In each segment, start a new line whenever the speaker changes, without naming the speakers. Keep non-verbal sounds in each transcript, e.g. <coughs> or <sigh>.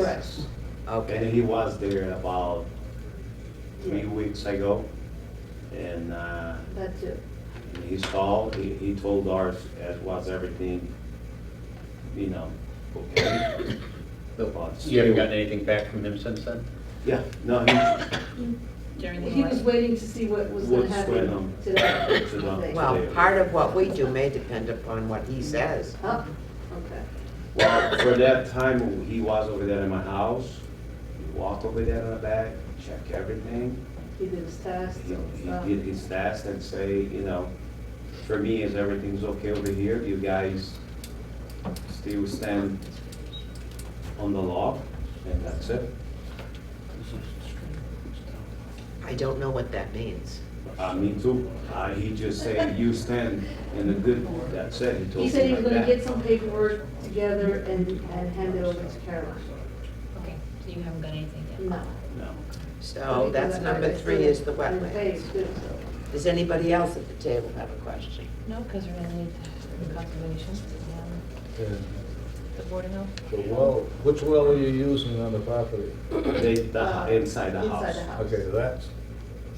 Correct.
And
Okay,
he was there about three weeks ago, and, uh,
That's it.
And He saw, he, he told ours as was everything, you know, okay. About
You haven't
steel.
gotten anything back from him since then?
Yeah, no, he,
during the
He was
election.
waiting to see what was gonna
What's going
happen
on.
to
<coughs>
that.
To the-
Wow.
today.
well, part of what we do may depend upon what he says.
Huh? okay.
well, for that time, he was over there in my house, he walked over there in the back, checked everything.
He did his test
He,
and stuff.
he did his test and say, you know, for me, is everything's okay over here, you guys still stand on the law, and that's it.
I don't know what that means.
Uh, me too. Uh, he just said, you stand in the good, that's it, he told me
He said he was
like
gonna
that.
get some paperwork together and, and hand it over to Caroline.
Okay, so you haven't got anything yet?
No.
No.
So Oh, that's number three is the wetlands. Does anybody else at the table have a question?
No, because we're gonna need the conservation, um, the board of health.
The well, which well are you using on the property?
They, the, hou- inside the
uh, Inside
house.
the house.
Okay, that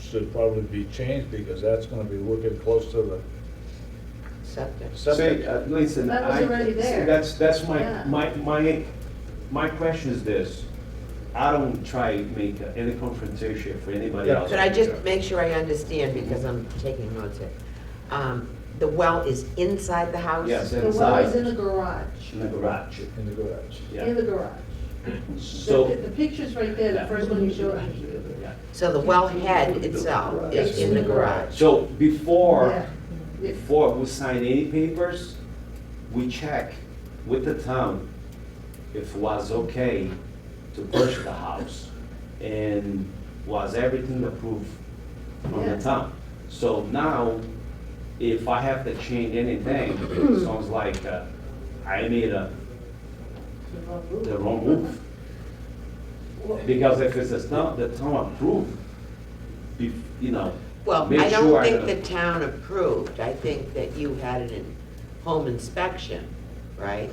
should probably be changed because that's gonna be working close to the
Septic.
Say,
septic.
uh, listen.
That was
I-
already there.
That's, that's
Yeah.
my, my, my, my question is this. I don't try to make any confrontation for anybody
Yeah.
else.
Could I just make sure I understand, because I'm taking notes here. Um, The well is inside the house?
Yes,
The well
inside,
is in the
in
garage,
the garage,
In the garage.
in
yeah.
the garage. The-
So.
The picture's right there, the first one you showed.
Yeah.
So the well head itself is
Yes.
in the garage?
So before.
Yeah. It's-
Before we sign any papers, we check with the town if was okay to purchase the house. And was everything approved from the
Yeah.
town? So now, if I have to change anything,
<clears throat>
sounds like uh, I made a, the wrong move. Because if it's the town, the town approved, bef- you know.
Well,
make
I
sure
don't think the
don't-
town approved, I think that you had an in- home inspection, right?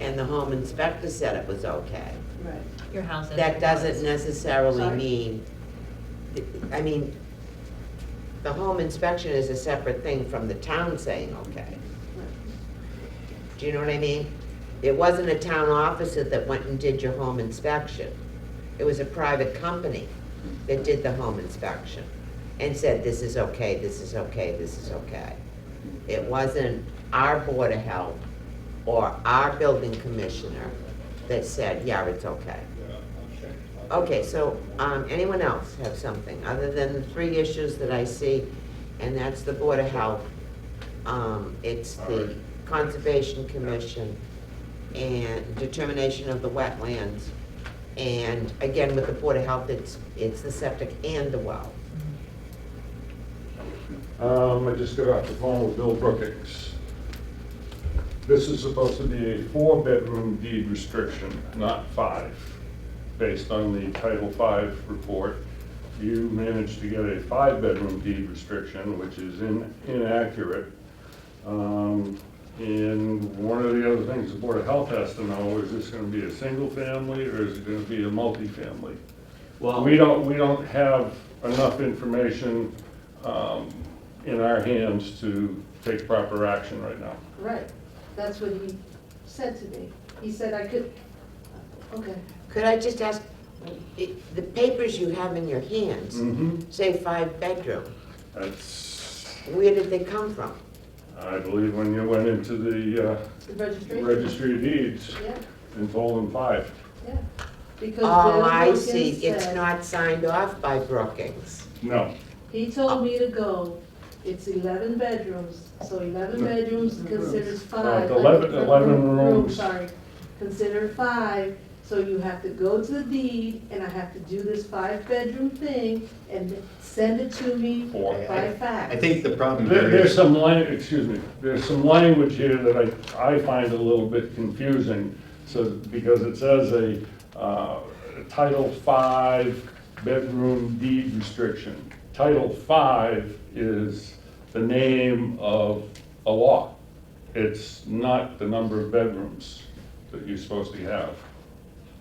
And the home inspector said it was okay.
Right.
Your house is.
That doesn't necessarily
Sorry?
mean, I mean, the home inspection is a separate thing from the town saying okay. Do you know what I mean? It wasn't a town officer that went and did your home inspection. It was a private company that did the home inspection and said, this is okay, this is okay, this is okay. It wasn't our Board of Health or our building commissioner that said, yeah, it's okay. Okay, so, um, anyone else have something, other than the three issues that I see, and that's the Board of Health, um, it's the Conservation Commission, and determination of the wetlands, and again, with the Board of Health, it's, it's the septic and the well.
Um, I just got off the phone with Bill Brookings. This is supposed to be a four-bedroom deed restriction, not five. Based on the Title V report, you managed to get a five-bedroom deed restriction, which is in- inaccurate. Um, And one of the other things the Board of Health has to know, is this gonna be a single family or is it gonna be a multifamily?
Well,
We don't, we don't have enough information um, in our hands to take proper action right now.
Right, that's what he said to me. He said I could, okay,
Could I just ask, i- the papers you have in your hands
Mhm.
say five bedroom,
That's,
where did they come from?
I believe when you went into the uh,
the registration.
registry of deeds
Yeah,
and told them five.
yeah. Because
Oh,
Bill
I
Wilkins
see, it's
said-
not signed off by Brookings.
No,
He told me to go, it's eleven bedrooms, so eleven bedrooms considers five.
Right, 11
uh,
11
room- room,
rooms.
Sorry, consider five, so you have to go to the deed, and I have to do this five-bedroom thing, and send it to me
Four.
by fax.
I think the problem
There-
here
there's
is,
some language, excuse me, there's some language here that I, I find a little bit confusing. So, because it says a uh, Title V bedroom deed restriction. Title V is the name of a law. It's not the number of bedrooms that you're supposed to have.